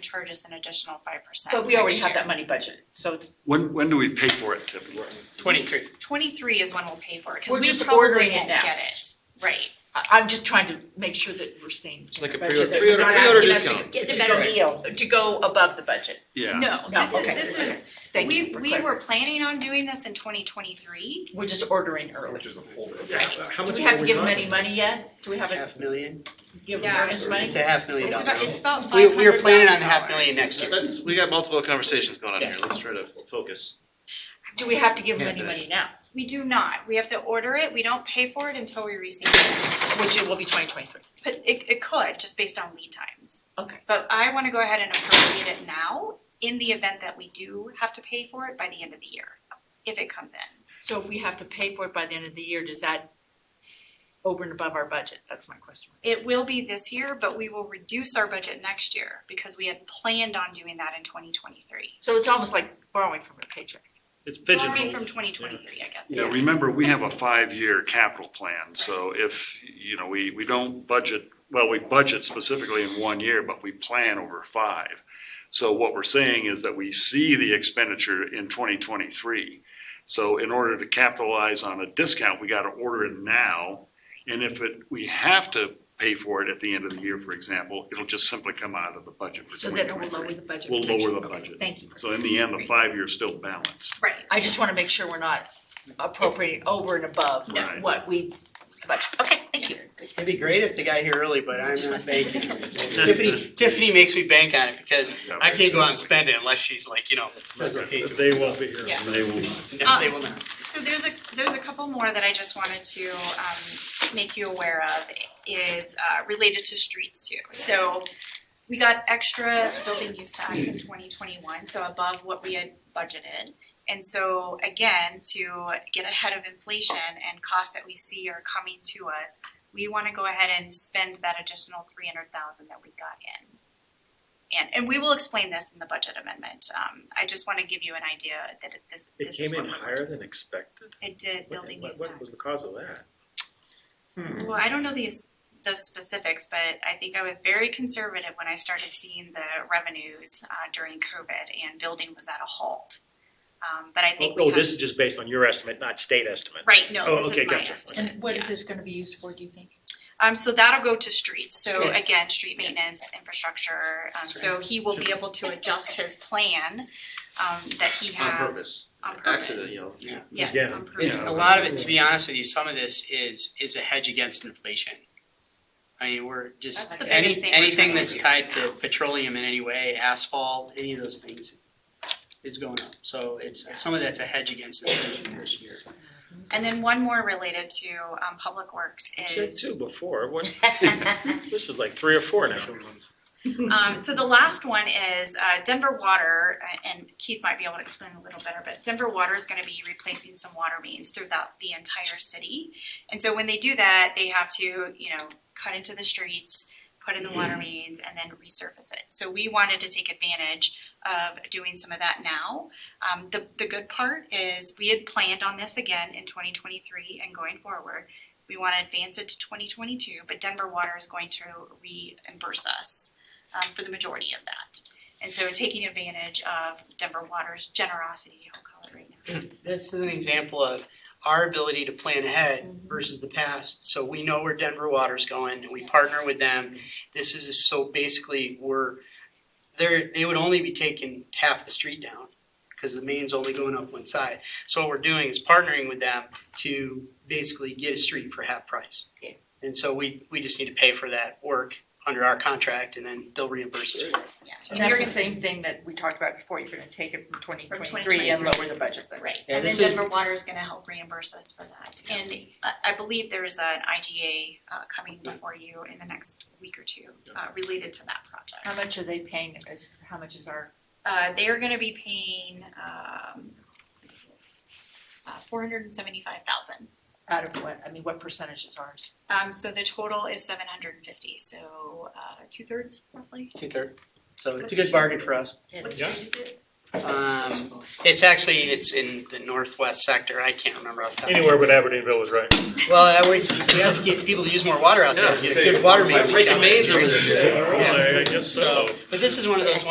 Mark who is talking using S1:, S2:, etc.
S1: charge us an additional five percent.
S2: But we already have that money budgeted, so it's,
S3: When, when do we pay for it typically?
S4: Twenty-three.
S1: Twenty-three is when we'll pay for it,
S2: We're
S1: because we
S2: just
S1: probably
S2: ordering it
S1: won't
S2: now.
S1: get it, right,
S2: I, I'm just trying to make sure that we're staying.
S4: It's like a
S2: in the budget,
S4: pre-order-
S2: that we're
S4: pre-order-
S2: not
S4: pre-order
S2: asking us to
S4: discount.
S2: get-
S5: Get a
S2: to
S5: better
S2: go-
S5: deal.
S2: To go above the budget,
S3: Yeah,
S1: no,
S2: No,
S1: this is,
S2: okay,
S1: this
S2: okay.
S1: is,
S2: thank you,
S1: we,
S2: we're
S1: we
S2: clear.
S1: were planning on doing this in twenty twenty-three.
S2: We're just ordering early.
S1: Right.
S6: How
S2: Do
S6: much
S2: we
S6: are
S2: have to
S6: we
S2: give them
S6: talking
S2: any money yet? Do we have a,
S7: Half million?
S2: give them
S1: Yeah.
S2: earnest money?
S7: It's a half million
S1: It's
S7: dollars.
S1: about, it's about five
S7: We,
S1: hundred thousand
S7: we were planning on half million next year.
S4: Let's, we got multiple conversations going on here, let's try to focus.
S2: Do we have to give them
S4: Yeah,
S2: any
S4: finish.
S2: money now?
S1: We do not, we have to order it, we don't pay for it until we receive it,
S2: Which it will be twenty twenty-three.
S1: but it, it could, just based on lead times.
S2: Okay.
S1: But I wanna go ahead and appropriate it now, in the event that we do have to pay for it by the end of the year, if it comes in.
S2: So if we have to pay for it by the end of the year, does that over and above our budget? That's my question.
S1: It will be this year, but we will reduce our budget next year because we had planned on doing that in twenty twenty-three.
S2: So it's almost like borrowing from a paycheck.
S4: It's
S1: Borrowing from twenty twenty-three, I guess.
S3: yeah, remember, we have a five-year capital plan, so if, you know, we, we don't budget, well, we budget specifically in one year, but we plan over five. So what we're saying is that we see the expenditure in twenty twenty-three. So in order to capitalize on a discount, we gotta order it now. And if it, we have to pay for it at the end of the year, for example, it'll just simply come out of the budget for
S2: So
S3: twenty
S2: then it will lower
S3: twenty-three.
S2: the budget.
S3: We'll
S2: for next
S3: lower
S2: year.
S3: the
S2: Okay,
S3: budget.
S2: Thank you.
S3: So in the end, the five-year's still balanced.
S1: Right,
S2: I just want to make sure we're not appropriating over and above
S3: No. Right.
S2: what we budget. Okay, thank you.
S7: It'd be great if they got here early, but I'm
S2: Just
S7: not
S2: must take
S7: banking. on it. Tiffany, Tiffany makes me bank on it because
S3: Yeah,
S7: I can't go out and
S3: so-
S7: spend it unless she's like, you know, says okay to me.
S6: They won't be here.
S1: Yeah.
S3: They will.
S7: No,
S1: Uh,
S7: they will not.
S1: so there's a, there's a couple more that I just wanted to um make you aware of is uh related to streets too. So we got extra building use tax in twenty twenty-one, so above what we had budgeted. And so again, to get ahead of inflation and costs that we see are coming to us, we wanna go ahead and spend that additional three hundred thousand that we got in. And and we will explain this in the budget amendment. Um I just wanna give you an idea that it- this
S6: It
S1: this is
S6: came
S1: what
S6: in
S1: we're
S6: higher than expected?
S1: it did
S6: What-
S1: building
S6: what-
S1: use
S6: What was
S1: tax.
S6: the cause of that?
S1: Well, I don't know these, the specifics, but I think I was very conservative when I started seeing the revenues uh during COVID and building was at a halt. Um but I think we
S6: Oh,
S1: have.
S6: this is just based on your estimate, not state estimate.
S1: Right, no,
S6: Oh,
S1: this
S6: okay,
S1: is my
S6: gotcha.
S1: estimate.
S8: And what
S1: Yeah.
S8: is this gonna be used for, do you think?
S1: Um, so that'll go to streets, so
S7: Streets.
S1: again, street maintenance, infrastructure, um, so he will be able to adjust his plan, um, that he
S4: On
S1: has.
S4: purpose,
S1: On purpose.
S4: accident, you know.
S6: Yeah.
S1: Yes, on purpose.
S7: It's, a lot of it, to be honest with you, some of this is, is a hedge against inflation. I mean, we're just,
S1: That's the biggest
S7: any,
S1: thing we're
S7: anything
S1: trying to
S7: that's
S1: do.
S7: tied to petroleum in any way, asphalt, any of those things is going up. So it's, some of that's a hedge against inflation this year.
S1: And then one more related to, um, public works
S6: You
S1: is.
S6: said two before, what, this was like three or four now.
S1: Um, so the last one is uh, Denver Water, uh, and Keith might be able to explain a little better, but Denver Water is going to be replacing some water mains throughout the entire city. And so when they do that, they have to, you know, cut into the streets, put in the water mains, and then resurface it. So we wanted to take advantage of doing some of that now. Um, the, the good part is we had planned on this again in 2023 and going forward. We want to advance it to 2022, but Denver Water is going to reimburse us um, for the majority of that. And so taking advantage of Denver Water's generosity, I'll call it right now.
S7: This, this is an example of our ability to plan ahead versus the past, so we know where Denver Water's going, and we partner with them. This is, so basically, we're, they're, they would only be taking half the street down, because the main's only going up one side. So what we're doing is partnering with them to basically get a street for half price.
S2: Okay.
S7: And so we, we just need to pay for that work under our contract, and then they'll reimburse us for it.
S1: Yeah.
S7: So-
S2: And
S1: you're
S2: that's the
S1: gonna-
S2: same thing that we talked about before, you're gonna take it from twenty twenty-three
S1: 2023.
S2: and lower the budget then.
S1: Right, and
S7: Yeah,
S1: then
S7: this is-
S1: Denver Water is gonna help reimburse us for that. And I, I believe there is an IGA, uh, coming before you in the next week or two, uh, related to that
S2: How
S1: project.
S2: much are they paying us, how much is our,
S1: Uh, they are gonna be paying, um, uh, four hundred and seventy-five thousand.
S2: out of what, I mean, what percentage is ours?
S1: Um, so the total is seven hundred and fifty, so, uh, two-thirds roughly.
S7: Two-third. So it's a good bargain for us.
S1: What
S6: Yeah.
S1: street is it?
S7: Um, It's actually, it's in the northwest sector, I can't remember off the top. of my
S6: Anywhere but Aberdeenville was right.
S7: head. Well, that way, we have to get people to use more water out there,
S4: Yeah,
S7: get a
S4: say,
S7: good water main.
S4: breaking mains over there.
S6: Yeah, I guess so.
S7: So, but this is one of those ones